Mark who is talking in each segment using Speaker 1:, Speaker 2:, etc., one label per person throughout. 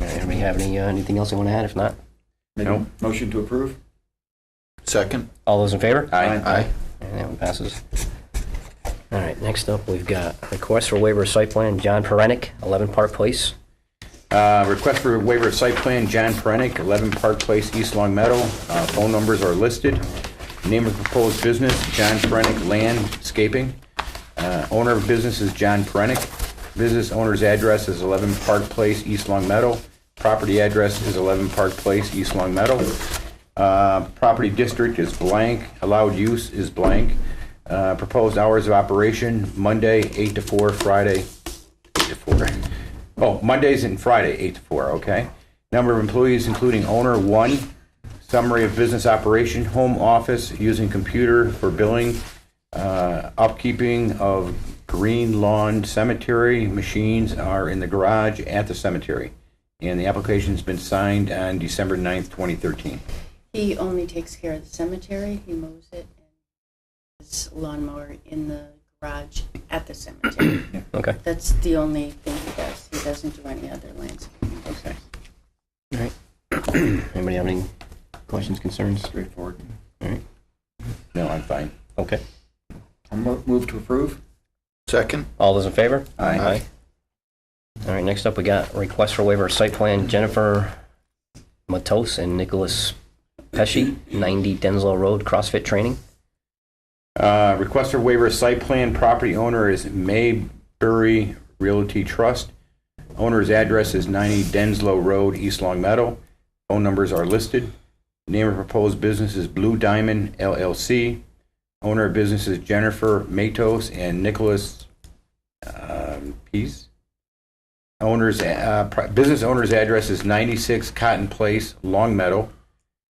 Speaker 1: Anybody have any, uh, anything else they want to add? If not,
Speaker 2: Make a
Speaker 3: No.
Speaker 2: motion to approve?
Speaker 3: Second?
Speaker 1: all those in favor?
Speaker 2: Aye.
Speaker 3: Aye.
Speaker 1: And that one passes. All right, next up, we've got request for waiver of site plan, John Perenick, 11 Park Place.
Speaker 3: Uh, Request for waiver of site plan, John Perenik, 11 Park Place, East Long Meadow. Uh, Phone numbers are listed. Name of proposed business, John Perenik Landscaping. Uh, Owner of business is John Perenik. Business owner's address is 11 Park Place, East Long Meadow. Property address is 11 Park Place, East Long Meadow. Uh, Property district is blank, allowed use is blank. Uh, Proposed hours of operation, Monday, 8 to 4, Friday, 8 to 4. Oh, Mondays and Friday, 8 to 4, okay. Number of employees, including owner, 1. Summary of business operation, home office, using computer for billing, uh, upkeeping of green lawn cemetery, machines are in the garage at the cemetery. And the application's been signed on December 9th, 2013.
Speaker 4: He only takes care of the cemetery, he mows it, and his lawnmower in the garage at the cemetery.
Speaker 1: Okay.
Speaker 4: That's the only thing he does. He doesn't do any other landscaping.
Speaker 3: Okay.
Speaker 1: All right. Anybody have any questions, concerns?
Speaker 2: Straightforward.
Speaker 3: No, I'm fine.
Speaker 1: Okay.
Speaker 2: I'll mo- move to approve?
Speaker 3: Second?
Speaker 1: All those in favor?
Speaker 2: Aye.
Speaker 1: All right, next up, we got request for waiver of site plan, Jennifer Matos and Nicholas Pesci, 90 Denzlow Road, CrossFit Training.
Speaker 3: Uh, Request for waiver of site plan, property owner is Mayberry Realty Trust. Owner's address is 90 Denslow Road, East Long Meadow. Phone numbers are listed. Name of proposed business is Blue Diamond LLC. Owner of business is Jennifer Matos and Nicholas um, Pease. Owner's, uh, pri- business owner's address is 96 Cotton Place, Long Meadow.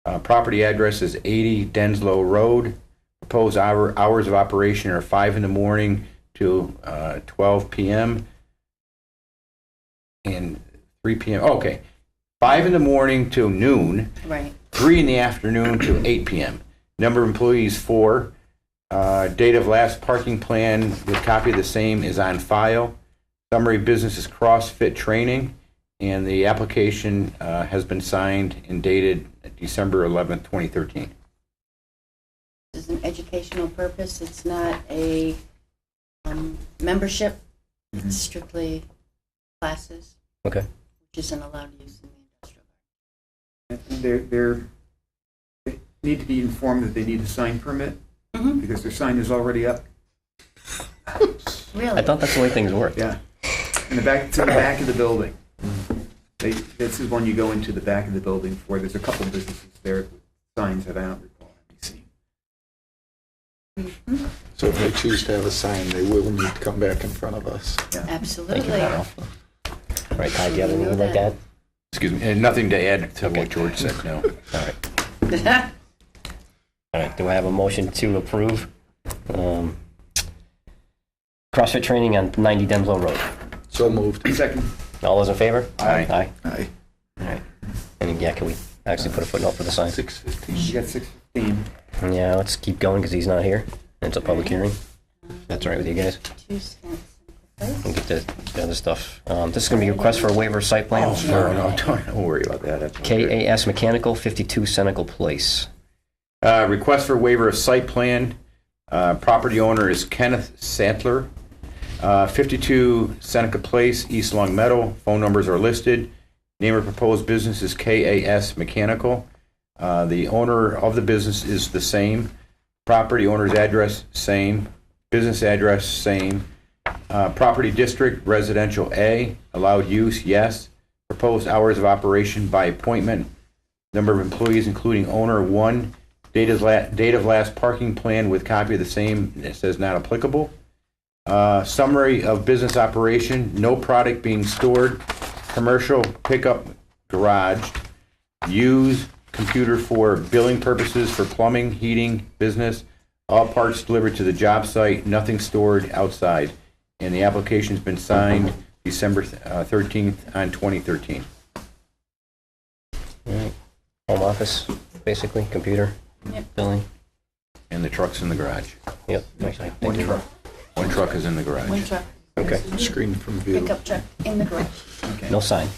Speaker 3: Uh, Property address is 80 Denslow Road. Proposed hour, hours of operation are five in the morning to uh, twelve p.m. and three p.m. Okay, five in the morning to noon,
Speaker 4: Right.
Speaker 3: three in the afternoon to eight p.m. Number of employees four. Uh, date of last parking plan with copy of the same is on file. Summary of business is CrossFit training, and the application uh, has been signed and dated December eleventh, twenty thirteen.
Speaker 4: This is an educational purpose. It's not a um, membership.
Speaker 1: Mm-hmm.
Speaker 4: It's strictly classes,
Speaker 1: Okay.
Speaker 4: which isn't allowed use in the industrial.
Speaker 2: And They're, they're, they need to be informed that they need a sign permit
Speaker 4: Mhm.
Speaker 2: because their sign is already up.
Speaker 4: Really?
Speaker 1: Mm-hmm. I thought that's the way things work.
Speaker 2: Yeah. In the back, to the back of the building. They, this is one you go into the back of the building for. There's a couple of businesses there with signs that I don't recall having seen.
Speaker 4: Mm-hmm.
Speaker 5: So if they choose to have a sign, they will need to come back in front of us.
Speaker 1: Thank you,
Speaker 4: Absolutely.
Speaker 1: Kyle. All right, Ty, do you have anything you'd like to add?
Speaker 3: Excuse me, and nothing to add to
Speaker 1: Okay.
Speaker 3: what George said, no.
Speaker 1: All right. All right, do I have a motion to approve um, CrossFit training on 90 Denslow Road?
Speaker 5: So moved.
Speaker 2: Second,
Speaker 1: All those in favor?
Speaker 3: Aye.
Speaker 1: Aye.
Speaker 5: Aye.
Speaker 1: All right. And yeah, can we actually put a footnote for the sign?
Speaker 5: Six
Speaker 2: you
Speaker 5: fifteen.
Speaker 2: got six fifteen.
Speaker 1: Yeah, let's keep going because he's not here. It's a public hearing. That's all right with you guys.
Speaker 4: Two cents. Right?
Speaker 1: We'll get the the other stuff. Um, This is going to be a request for a waiver of site plan.
Speaker 3: No, no, don't, don't worry about that. That's okay.
Speaker 1: KAS Mechanical, 52 Senecal Place.
Speaker 3: Uh, request for waiver of site plan. Uh, property owner is Kenneth Santler, uh, 52 Seneca Place, East Long Meadow. Phone numbers are listed. Name of proposed business is KAS Mechanical. Uh, the owner of the business is the same. Property owner's address, same. Business address, same. Uh, property district, residential A. Allowed use, yes. Proposed hours of operation by appointment. Number of employees, including owner, one. Date of la, date of last parking plan with copy of the same, it says not applicable. Uh, summary of business operation, no product being stored, commercial pickup garage. Use computer for billing purposes for plumbing, heating, business. All parts delivered to the job site, nothing stored outside. And the application's been signed December uh, thirteenth on twenty thirteen.
Speaker 1: All right. Home office, basically, computer,
Speaker 4: Yep.
Speaker 1: billing.
Speaker 3: And the truck's in the garage.
Speaker 1: Yep. actually,
Speaker 2: One truck.
Speaker 3: One truck is in the garage.
Speaker 4: One truck.
Speaker 1: Okay.
Speaker 5: Screen from view.
Speaker 4: Pickup truck in the garage.
Speaker 1: No sign.